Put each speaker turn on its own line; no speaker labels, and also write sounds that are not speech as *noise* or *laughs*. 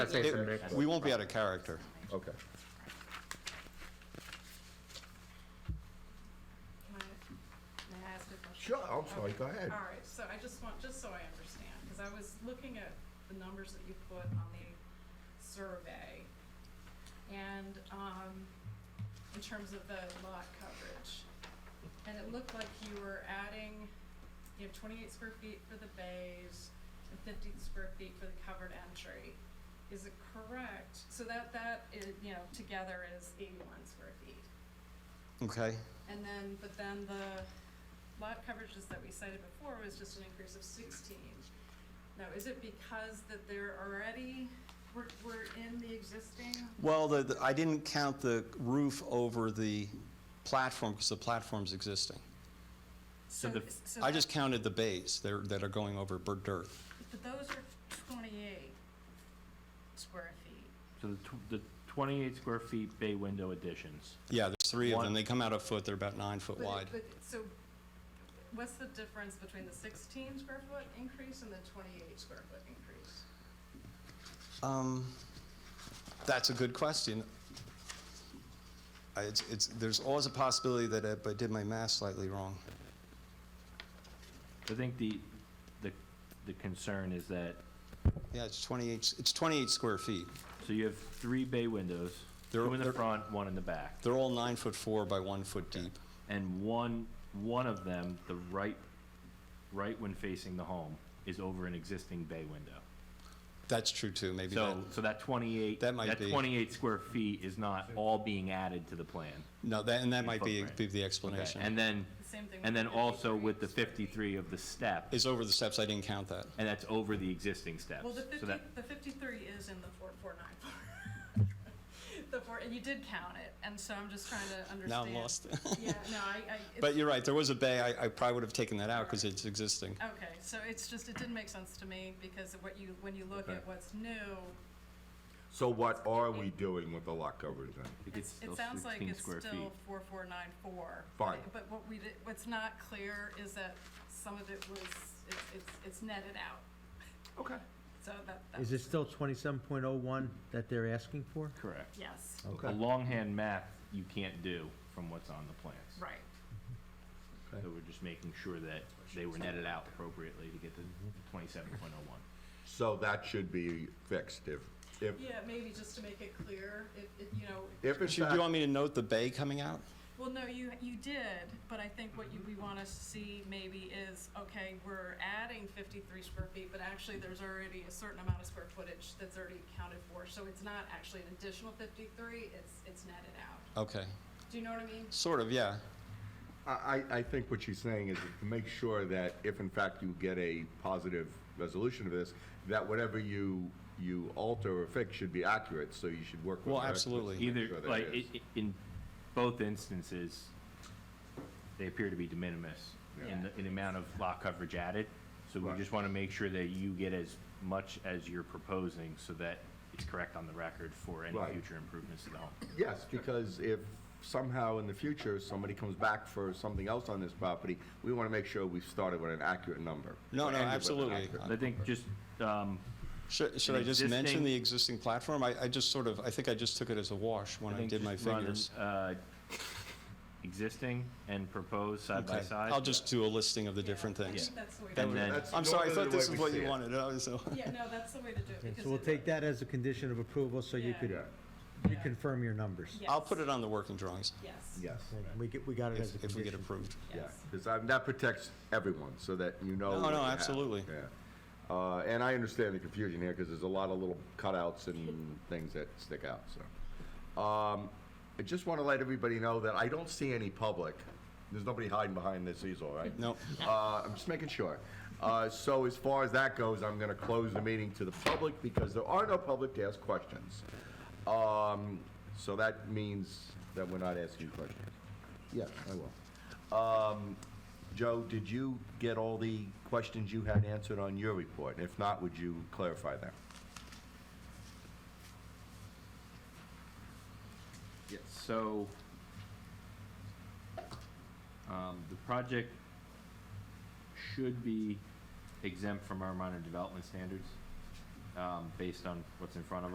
That's it,
It-
Rick.
We won't be out of character.
Okay.
Can I, may I ask a question?
Sure, I'm sorry, go ahead.
All right, so I just want, just so I understand, because I was looking at the numbers that you put on the survey, and, um, in terms of the lot coverage, and it looked like you were adding, you have twenty-eight square feet for the bays and fifty square feet for the covered entry. Is it correct? So that, that is, you know, together is eighty-one square feet.
Okay,
And then, but then the lot coverages that we cited before was just an increase of sixteen. Now, is it because that they're already, we're, we're in the existing?
well, the, the- I didn't count the roof over the platform, because the platform's existing.
So the-
so
I
that-
just counted the bays that are, that are going over bur- dirt.
But those are twenty-eight square feet.
So the tw- the 28 square feet bay window additions.
Yeah, there's three of them,
One-
they come out a foot, they're about nine foot
But it-
wide.
But, so, what's the difference between the sixteen square foot increase and the twenty-eight square foot increase?
Um, That's a good question. I- It's, it's, there's always a possibility that I but I did my math slightly wrong.
I think the, the, the concern is that,
Yeah, it's 28, it's 28 square feet.
so you have three bay windows,
They're-
two in the
they're-
front, one in the back.
They're all nine foot four by one foot deep.
And one, one of them, the right, right when facing the home, is over an existing bay window.
That's true too, maybe that,
So, so that 28,
That might
that
be-
28 square feet is not all being added to the plan.
no, that, and that might be,
Footprint.
be the
Okay,
explanation.
And then,
The same thing. with
and then
the
also with the
53 square feet.
53 of the step,
It's over the steps, I didn't count that.
and that's over the existing steps.
Well, the
So
fifty,
that-
the fifty-three is in the four, four, nine, four. *laughs* The four, and you did count it, and so I'm just trying to understand.
Now I'm lost.
*laughs* Yeah, no, I, I.
*laughs* But
it's-
you're right, there was a bay, I, I probably would have taken that out because it's existing.
Okay, so it's just, it didn't make sense to me, because of what you, when you look
Okay.
at what's new,
So what are we doing with the lot coverage then?
I think
it's,
still
it sounds like
16
it's
square feet.
still four, four, nine, four.
Fine.
But what we did, what's not clear is that some of it was, it's, it's, it's netted out,
Okay.
so that, that,
Is it still twenty-seven point oh one that they're asking for?
Correct.
yes,
A longhand math you can't do from what's on the plans.
right.
So we're just making sure that they were netted out appropriately to get the
Mm-hmm.
twenty-seven point oh one.
So that should be fixed if, if,
Yeah, maybe just to make it clear, it, it, you know,
if in
Should, do you want
fact,
me to note the bay coming out?
Well, no, you, you did, but I think what you, we want to see maybe is, okay, we're adding fifty-three square feet, but actually there's already a certain amount of square footage that's already accounted for, so it's not actually an additional fifty-three, it's, it's netted out.
Okay,
Do you know what I mean?
sort of, yeah.
I, I I think what she's saying is to make sure that if in fact you get a positive resolution of this, that whatever you, you alter or fix should be accurate, so you should work with.
Well,
our experts to
absolutely.
make
Either,
sure that
like,
it
i-
is.
i- in both instances, they appear to be de minimis in the, in the amount of lot coverage added. So we
Right.
just want to make sure that you get as much as you're proposing so that it's correct on the record for any
Right.
future improvements to the home.
Yes, because if somehow in the future, somebody comes back for something else on this property, we want to make sure we've started with an accurate number.
No,
or
no,
ended with an
absolutely.
accurate
I think just, um,
Should, should I just mention
existing-
the existing platform? I, I just sort of, I think I just took it as a wash when I
think
did my
just run,
figures.
uh, Existing and proposed side by
Okay,
side.
I'll just do a listing of the different
I
things.
think that's the way to
And
do it.
then-
That's
I'm sorry, I
normally
thought
the
this
way
is
we
what
see
you
it.
wanted, *laughs* I was, so-
Yeah, no, that's the way to do it. because
So we'll
it-
take that as a condition of approval, so you
Yeah.
could
Yeah,
reconfirm your numbers.
Yes.
I'll put it on the working drawings
Yes.
yes,
We get, we got it as a
if, if we get
condition.
approved.
yeah.
Yes.
Because that protects everyone, so that you know.
No,
what
no,
you have.
absolutely.
Yeah. Uh, And I understand the confusion here, because there's a lot of little cutouts and *laughs* things that stick out, so. Um, I just want to let everybody know that I don't see any public. There's nobody hiding behind this easel, right?
No,
Uh, I'm just making sure. Uh, So as far as that goes, I'm going to close the meeting to the public because there are no public to ask questions. Um, So that means that we're not asking questions. Yeah, I will. Um, Joe, did you get all the questions you had answered on your report? If not, would you clarify them?
So, um, the project should be exempt from our minor development standards, um, based on what's in front of